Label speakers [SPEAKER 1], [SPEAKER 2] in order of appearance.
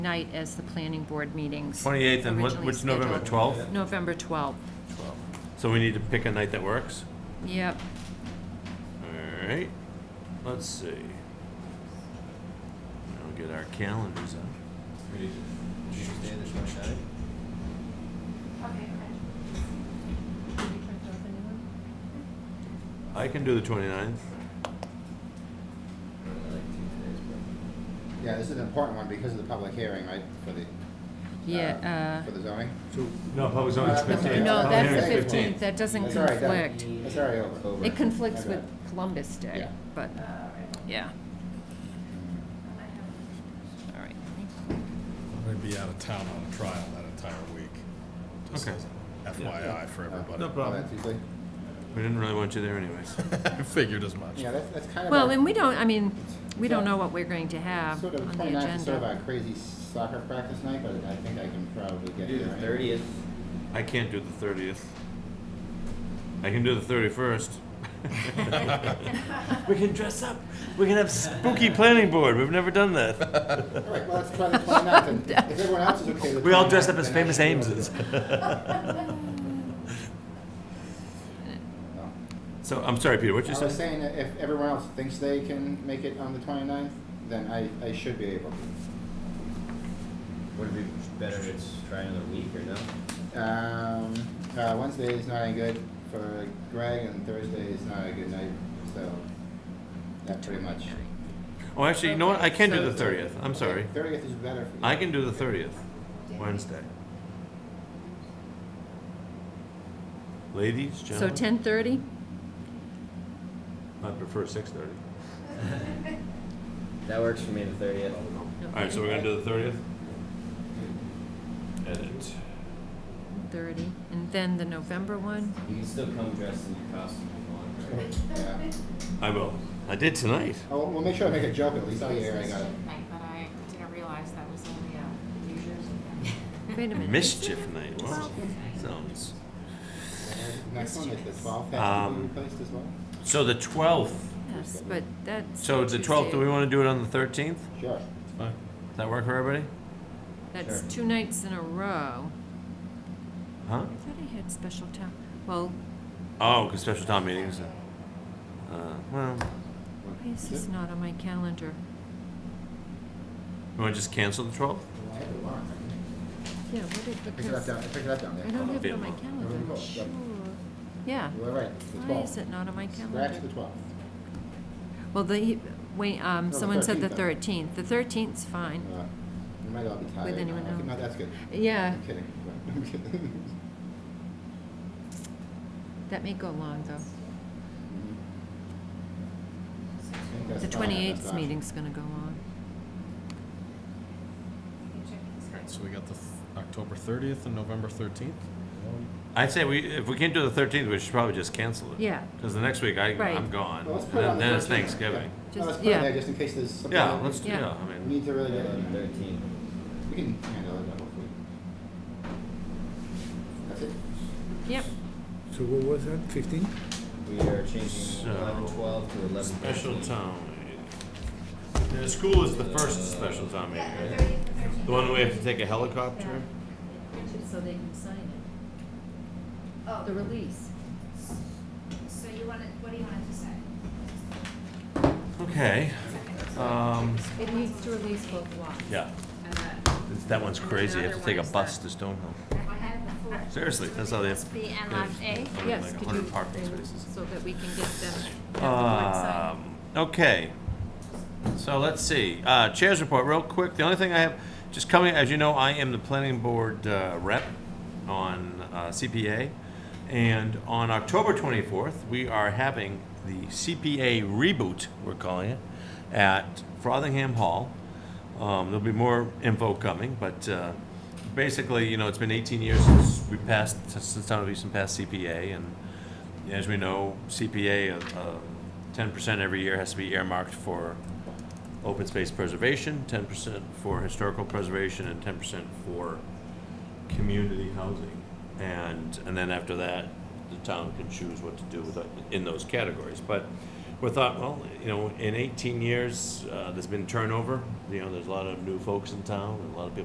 [SPEAKER 1] night as the planning board meetings.
[SPEAKER 2] 28th and what-
[SPEAKER 1] originally
[SPEAKER 2] which November,
[SPEAKER 1] scheduled.
[SPEAKER 2] 12th?
[SPEAKER 1] November 12th.
[SPEAKER 2] So we need to pick a night that works?
[SPEAKER 1] Yep.
[SPEAKER 2] Alright, let's see. Now get our calendars out.
[SPEAKER 3] Tuesday, there's no Saturday?
[SPEAKER 2] I can do the 29th.
[SPEAKER 4] Yeah, this is an important one because of the public hearing, right, for the. uh,
[SPEAKER 1] Yeah, uh,
[SPEAKER 4] For the zoning?
[SPEAKER 2] No, public
[SPEAKER 4] zoning's
[SPEAKER 2] zoning's 15th.
[SPEAKER 4] Uh, fifteenth.
[SPEAKER 1] No,
[SPEAKER 4] Public
[SPEAKER 1] that's the
[SPEAKER 4] hearing's
[SPEAKER 1] 15th, that doesn't
[SPEAKER 4] That's all right, that-
[SPEAKER 1] conflict.
[SPEAKER 4] It's already over.
[SPEAKER 1] It conflicts
[SPEAKER 4] Okay.
[SPEAKER 1] with Columbus Day,
[SPEAKER 4] Yeah.
[SPEAKER 1] but, yeah. All right.
[SPEAKER 5] I'm gonna be out of town on a trial that entire week. Just
[SPEAKER 2] Okay.
[SPEAKER 5] as FYI for
[SPEAKER 2] No
[SPEAKER 5] everybody.
[SPEAKER 4] Oh,
[SPEAKER 2] problem.
[SPEAKER 4] that's usually,
[SPEAKER 2] We didn't really want you there anyways.
[SPEAKER 5] I figured as much.
[SPEAKER 4] yeah, that's, that's kind of.
[SPEAKER 1] Well,
[SPEAKER 4] our-
[SPEAKER 1] and we don't, I mean, we don't
[SPEAKER 4] So-
[SPEAKER 1] know what we're going to have on
[SPEAKER 4] Sort
[SPEAKER 1] the
[SPEAKER 4] of,
[SPEAKER 1] agenda.
[SPEAKER 4] 29th is sort of our crazy soccer practice night, but I think I can probably get
[SPEAKER 3] Do
[SPEAKER 4] there.
[SPEAKER 3] the
[SPEAKER 4] right?
[SPEAKER 3] thirtieth.
[SPEAKER 2] I can't do the 30th. I can do the 31st. We can dress up. We can have spooky planning board. We've never done that.
[SPEAKER 4] All right, well, let's try the 29th, and if everyone else is okay with.
[SPEAKER 2] We all dress up
[SPEAKER 4] 29th,
[SPEAKER 2] as
[SPEAKER 4] then I
[SPEAKER 2] famous
[SPEAKER 4] should be able to
[SPEAKER 2] Ameses.
[SPEAKER 4] do it. Oh.
[SPEAKER 2] So, I'm sorry, Peter, what you
[SPEAKER 4] I was
[SPEAKER 2] say?
[SPEAKER 4] saying that if everyone else thinks they can make it on the 29th, then I, I should be able to.
[SPEAKER 3] Would it be better if it's try another week or no?
[SPEAKER 4] Um, uh, Wednesday is not any good for Greg, and Thursday is not a good night, so that pretty much.
[SPEAKER 2] Oh, actually, you know what? I can do the
[SPEAKER 4] So-
[SPEAKER 2] 30th. I'm sorry.
[SPEAKER 4] Thirtieth is better for you.
[SPEAKER 2] I can do the 30th, Wednesday. Ladies,
[SPEAKER 1] So
[SPEAKER 2] gentlemen?
[SPEAKER 1] 10:30?
[SPEAKER 2] I prefer 6:30.
[SPEAKER 3] That works for me, the thirtieth.
[SPEAKER 2] All right, so we're gonna do the 30th? Edit.
[SPEAKER 1] 30, and then the November one?
[SPEAKER 3] You can still come dressed in your costume if you want, right?
[SPEAKER 4] Yeah.
[SPEAKER 2] I will. I did tonight.
[SPEAKER 4] Oh, we'll make sure I make a joke at least, oh yeah, I got it.
[SPEAKER 6] Night, but I didn't realize that was only a New Year's event.
[SPEAKER 1] Wait a minute.
[SPEAKER 2] Mischief night. Wow. Sounds.
[SPEAKER 4] Next one, like the twelfth has to be
[SPEAKER 2] Um,
[SPEAKER 4] replaced as well?
[SPEAKER 2] So the 12th.
[SPEAKER 1] Yes, but that's.
[SPEAKER 2] So the 12th, do we
[SPEAKER 1] Tuesday.
[SPEAKER 2] want to do it on the 13th?
[SPEAKER 4] Sure.
[SPEAKER 2] Does that work for everybody?
[SPEAKER 1] That's
[SPEAKER 3] Sure.
[SPEAKER 1] two nights in a row.
[SPEAKER 2] Huh?
[SPEAKER 1] I thought I had special town, well,
[SPEAKER 2] Oh, because special town meetings. Uh, well,
[SPEAKER 1] why is this not on my calendar?
[SPEAKER 2] you want to just cancel the 12th?
[SPEAKER 4] I have it wrong.
[SPEAKER 1] Yeah, what did,
[SPEAKER 4] Pick it up
[SPEAKER 1] because
[SPEAKER 4] down, pick it up down
[SPEAKER 1] I
[SPEAKER 4] there.
[SPEAKER 1] don't have it on my
[SPEAKER 2] Available.
[SPEAKER 1] calendar, I'm
[SPEAKER 4] Available,
[SPEAKER 1] sure.
[SPEAKER 4] yep.
[SPEAKER 1] Yeah,
[SPEAKER 4] You were right, the
[SPEAKER 1] Uh-huh. why is
[SPEAKER 4] twelfth.
[SPEAKER 1] it not on my
[SPEAKER 4] Scratch the
[SPEAKER 1] calendar?
[SPEAKER 4] twelfth.
[SPEAKER 1] Well, the, wait, um,
[SPEAKER 4] the
[SPEAKER 1] someone said the
[SPEAKER 4] 13th
[SPEAKER 1] 13th, the 13th's fine.
[SPEAKER 4] Uh, We might all be tired.
[SPEAKER 1] anyone
[SPEAKER 4] Uh,
[SPEAKER 1] know?
[SPEAKER 4] No, that's good.
[SPEAKER 1] Yeah,
[SPEAKER 4] I'm kidding. I'm kidding.
[SPEAKER 1] that may go long, though.
[SPEAKER 4] I think that's
[SPEAKER 1] The
[SPEAKER 4] fine, that's
[SPEAKER 1] 28th
[SPEAKER 4] fine.
[SPEAKER 1] meeting's gonna go on.
[SPEAKER 5] Alright, So we got the th- October thirtieth and November thirteenth.
[SPEAKER 2] I'd say we, if we can't do the 13th, we should probably just cancel it.
[SPEAKER 1] Yeah.
[SPEAKER 2] Because the next week I,
[SPEAKER 1] Right.
[SPEAKER 2] I'm gone.
[SPEAKER 4] Well, let's
[SPEAKER 2] And
[SPEAKER 4] put it
[SPEAKER 2] then
[SPEAKER 4] on the
[SPEAKER 2] then it's
[SPEAKER 4] 13th.
[SPEAKER 2] Thanksgiving.
[SPEAKER 4] Yeah.
[SPEAKER 1] Just-
[SPEAKER 4] No, let's put it
[SPEAKER 1] yeah.
[SPEAKER 4] there just in case there's something.
[SPEAKER 2] Yeah,
[SPEAKER 4] that
[SPEAKER 2] let's, do.
[SPEAKER 1] Yeah.
[SPEAKER 2] yeah, I
[SPEAKER 4] We
[SPEAKER 2] mean,
[SPEAKER 4] need to really get,
[SPEAKER 3] Yeah,
[SPEAKER 4] it.
[SPEAKER 3] thirteenth.
[SPEAKER 4] we can handle it, hopefully. That's it.
[SPEAKER 1] Yep,
[SPEAKER 7] So what was that, fifteen?
[SPEAKER 3] We are changing
[SPEAKER 2] So-
[SPEAKER 3] eleven twelve to eleven
[SPEAKER 2] special
[SPEAKER 3] thirteen.
[SPEAKER 2] town meeting. The school is the first special town meeting, right? The one that we have to take a helicopter?
[SPEAKER 1] So they can sign it, Oh. the release.
[SPEAKER 6] so you wanted, what do you want it to say?
[SPEAKER 2] Okay, um,
[SPEAKER 1] It needs to release both lots.
[SPEAKER 2] yeah,
[SPEAKER 6] And that,
[SPEAKER 2] that one's
[SPEAKER 6] And then
[SPEAKER 2] crazy. You have to
[SPEAKER 6] another
[SPEAKER 2] take a
[SPEAKER 6] one is
[SPEAKER 2] bus
[SPEAKER 6] that-
[SPEAKER 2] to Stonehill.
[SPEAKER 6] I had it before.
[SPEAKER 2] Seriously, that's how they have.
[SPEAKER 6] Must be
[SPEAKER 2] they
[SPEAKER 6] in lot
[SPEAKER 2] have
[SPEAKER 6] A.
[SPEAKER 2] something
[SPEAKER 1] Yes,
[SPEAKER 2] like
[SPEAKER 1] could
[SPEAKER 2] 100
[SPEAKER 1] you,
[SPEAKER 2] parking spaces.
[SPEAKER 1] so that we can get them, have the board sign.
[SPEAKER 2] Um, okay. So let's see, uh, chairs report, real quick, the only thing I have, just coming, as you know, I am the planning board, uh, rep on, uh, CPA. And on October twenty-fourth, we are having the CPA reboot, we're calling it, at Frothingham Hall. Um, there'll be more info coming, but, uh, basically, you know, it's been eighteen years since we passed, since Town of Easton passed CPA and, as we know, CPA, uh, ten percent every year has to be earmarked for open space preservation, ten percent for historical preservation, and ten percent for community housing. And, and then after that, the town can choose what to do with, it in those categories. But we thought, well, you know, in 18 years, uh, there's been turnover. You know, there's a lot of new folks in town, and a lot of people